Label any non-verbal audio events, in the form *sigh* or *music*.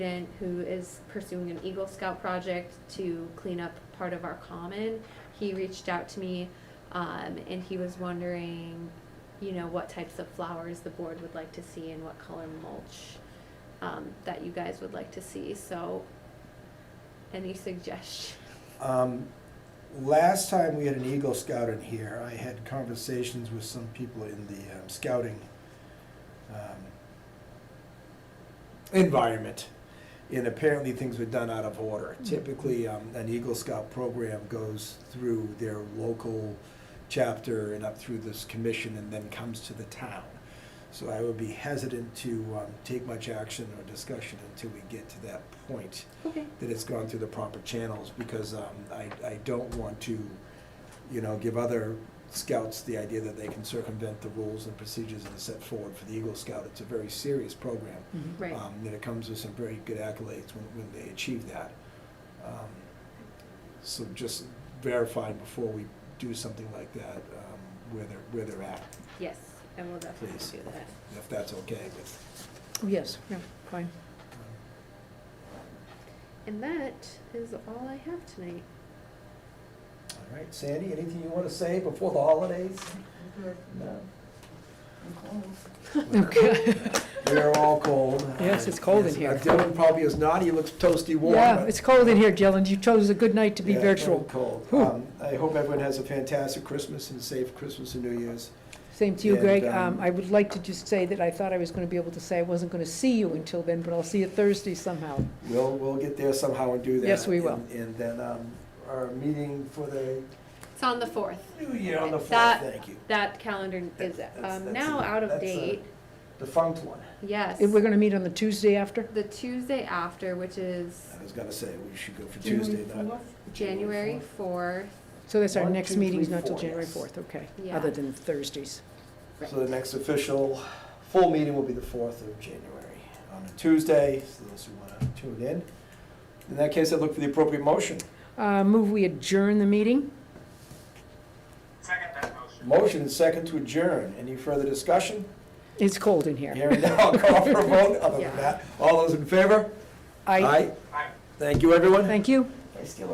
student who is pursuing an Eagle Scout project to clean up part of our common. He reached out to me, um, and he was wondering, you know, what types of flowers the board would like to see and what color mulch, um, that you guys would like to see, so any suggestions? Um, Last time we had an Eagle Scout in here, I had conversations with some people in the um, scouting um, environment, and apparently things were done out of order. Typically, um, an Eagle Scout program goes through their local chapter and up through this commission and then comes to the town. So I would be hesitant to um, take much action or discussion until we get to that point Okay. that it's gone through the proper channels, because um, I, I don't want to, you know, give other scouts the idea that they can circumvent the rules and procedures that are set forward for the Eagle Scout. It's a very serious program. Mm-hmm. Right, Um, And it comes with some very good accolades when, when they achieve that. Um, So just verifying before we do something like that, um, where they're, where they're at, yes, I will definitely Please. do that. if that's okay with. Oh, um, Yes, yeah, fine. And that is all I have tonight. All right, Sandy, anything you want to say before the holidays? No. *laughs* Okay, We are all cold. Yes, it's cold Yes, in here. uh, Dylan probably is not, he looks toasty warm. yeah, but- it's cold in here, Dylan, you chose a good night to be Yeah, virtual. very Cold. Whew. Um, I hope everyone has a fantastic Christmas and safe Christmas and New Year's. Same to you, And, Greg, um, um, I would like to just say that I thought I was gonna be able to say I wasn't gonna see you until then, but I'll see you Thursday somehow. We'll, we'll get there somehow and do that. Yes, we will. And- And then um, our meeting for the It's on the fourth. New Year on the fourth, That- thank you. That calendar is That's- that's- um, that's now a- out of that's a- date, Defunct one. yes. And we're gonna meet on the Tuesday after? The Tuesday after, which is I was gonna say, we should go for Tuesday night. January fourth. So that's our One, next two, meeting's three, not till four, January yes. fourth, okay, Yeah. other than Thursdays. So the next official full meeting will be the fourth of January on a Tuesday, so those who wanna tune in. In that case, I look for the appropriate motion. Uh, move we adjourn the meeting? Second that motion. Motion and second to adjourn. Any further discussion? It's cold in here. Hearing none, I'll call for a vote. Other than that, all those in favor? I, Aye. Thank you, everyone. thank you. I still